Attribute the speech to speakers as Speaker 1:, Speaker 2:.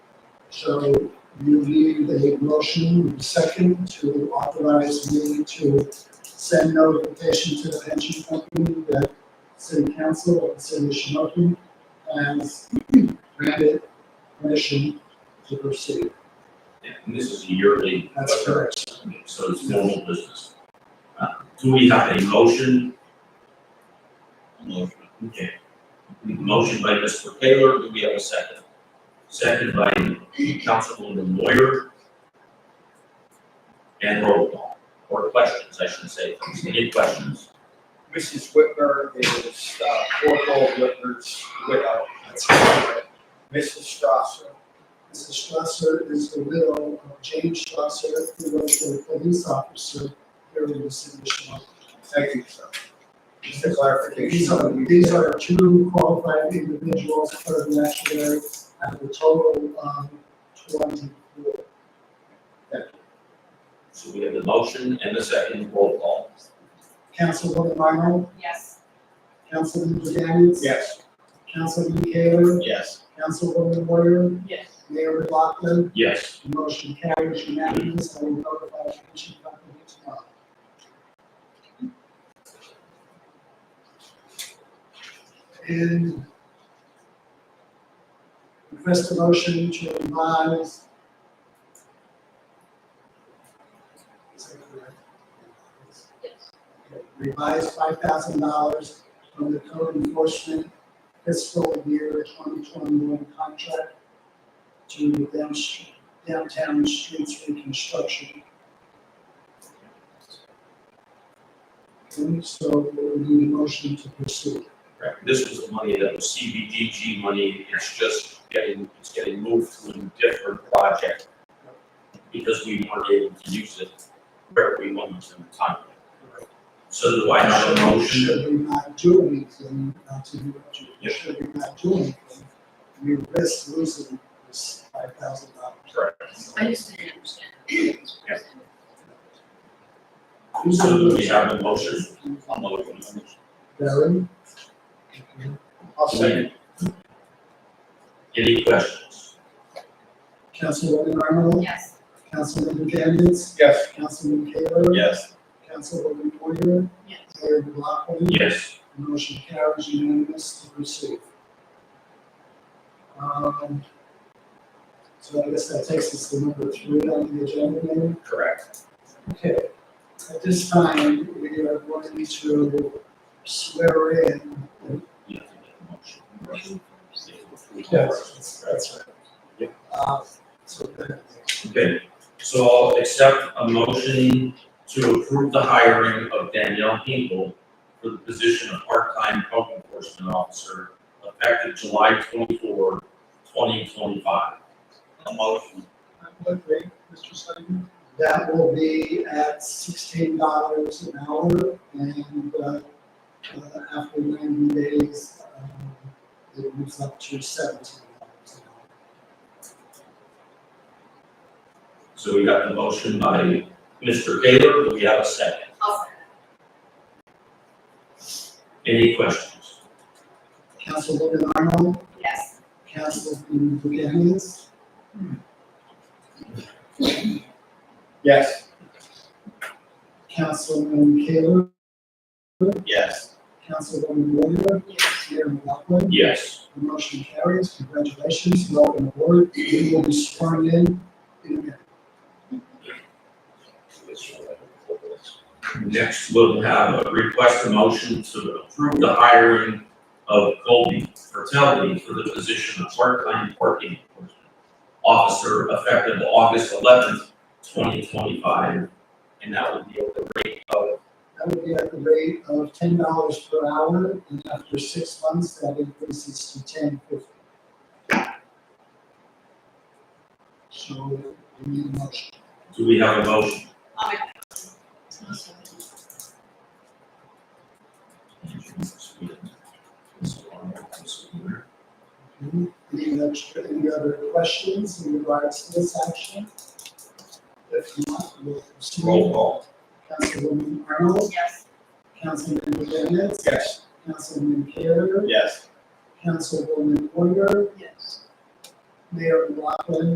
Speaker 1: So you need a motion second to authorize me to send notification to the pension company that city council of the city of Shamokin has granted permission to proceed.
Speaker 2: And this is a yearly.
Speaker 1: That's correct.
Speaker 2: So it's normal business. Uh, Do we have a motion? Motion. Okay. Motion by Mr. Taylor, do we have a second? Second by Councilwoman Moyer. And roll call, or questions, I should say, any questions?
Speaker 3: Mrs. Whitmer is uh, Corporal Whitmer's widow. Mrs. Strasser,
Speaker 1: Mrs. Strasser is the widow of James Strasser, who was a police officer here in the city of Shamokin.
Speaker 3: thank you, sir. Just a clarification.
Speaker 1: These are, these are two qualified individuals for the actuary at the total, um, twenty-four.
Speaker 2: So we have the motion and the second roll call.
Speaker 1: Councilwoman Arnold,
Speaker 4: Yes.
Speaker 1: Councilman Janice.
Speaker 3: Yes.
Speaker 1: Councilman Taylor,
Speaker 2: Yes.
Speaker 1: Councilwoman Warrior,
Speaker 4: Yes.
Speaker 1: Mayor McLaughlin,
Speaker 2: Yes.
Speaker 1: motion carries unanimous, I will notify the pension company tomorrow. And request a motion to revise. Is that correct? Okay, Revise five thousand dollars from the code enforcement fiscal year twenty twenty-one contract to the down- downtown streets reconstruction. And so we need a motion to pursue.
Speaker 2: Correct. This was the money that was CBDG money, it's just getting, it's getting moved to a different project because we weren't able to use it where we wanted to in the time. So do I have a motion?
Speaker 1: Should we not do anything, not to do, should we not do anything, we risk losing this five thousand dollars.
Speaker 2: Correct.
Speaker 4: I just didn't understand.
Speaker 2: So do we have a motion? A motion.
Speaker 1: Barry?
Speaker 3: I'll second.
Speaker 2: Any questions?
Speaker 1: Councilwoman Arnold?
Speaker 4: Yes.
Speaker 1: Councilman Daniels?
Speaker 3: Yes.
Speaker 1: Councilman Taylor?
Speaker 2: Yes.
Speaker 1: Councilwoman Poyer?
Speaker 4: Yes.
Speaker 1: Mayor McLaughlin?
Speaker 2: Yes.
Speaker 1: Motion carries unanimous to proceed. Um, So I guess that takes us to number three on the agenda then.
Speaker 2: Correct.
Speaker 1: Okay. At this time, we are going to swear in.
Speaker 2: You have to make a motion.
Speaker 1: Yes, that's right. Uh, So that-
Speaker 2: Okay, so I'll accept a motion to approve the hiring of Danielle Hinkle for the position of part-time code enforcement officer effective July 24, 2025. A motion.
Speaker 1: Mr. Slavin? That will be at sixteen dollars an hour and, uh, uh, after ninety days, um, it moves up to seventeen dollars an hour.
Speaker 2: So we got the motion by Mr. Taylor, do we have a second?
Speaker 4: I'll
Speaker 2: Any questions?
Speaker 1: Councilwoman Arnold,
Speaker 4: Yes.
Speaker 1: Councilwoman Duganez,
Speaker 3: Yes.
Speaker 1: Councilman Taylor,
Speaker 2: Yes.
Speaker 1: Councilwoman Warrior,
Speaker 4: Yes.
Speaker 1: Mayor McLaughlin.
Speaker 2: Yes.
Speaker 1: The motion carries. Congratulations, welcome aboard. You will be sworn in in a minute.
Speaker 2: Next, we'll have a request a motion to approve the hiring of Colby Fertelli for the position of part-time parking enforcement officer effective August eleventh, twenty twenty-five. And that would be at the rate of,
Speaker 1: That would be at the rate of ten dollars per hour, and after six months, that increases to ten fifty. So, we need a motion.
Speaker 2: do we have a motion?
Speaker 4: I'll make
Speaker 1: Any other, any other questions in regards to this action? If not, we'll proceed.
Speaker 2: Roll call.
Speaker 1: Councilwoman Arnold,
Speaker 4: Yes.
Speaker 1: Councilman Bennett,
Speaker 3: Yes.
Speaker 1: Councilman Carrier,
Speaker 3: Yes.
Speaker 1: Councilwoman Poyer,
Speaker 4: Yes.
Speaker 1: Mayor McLaughlin,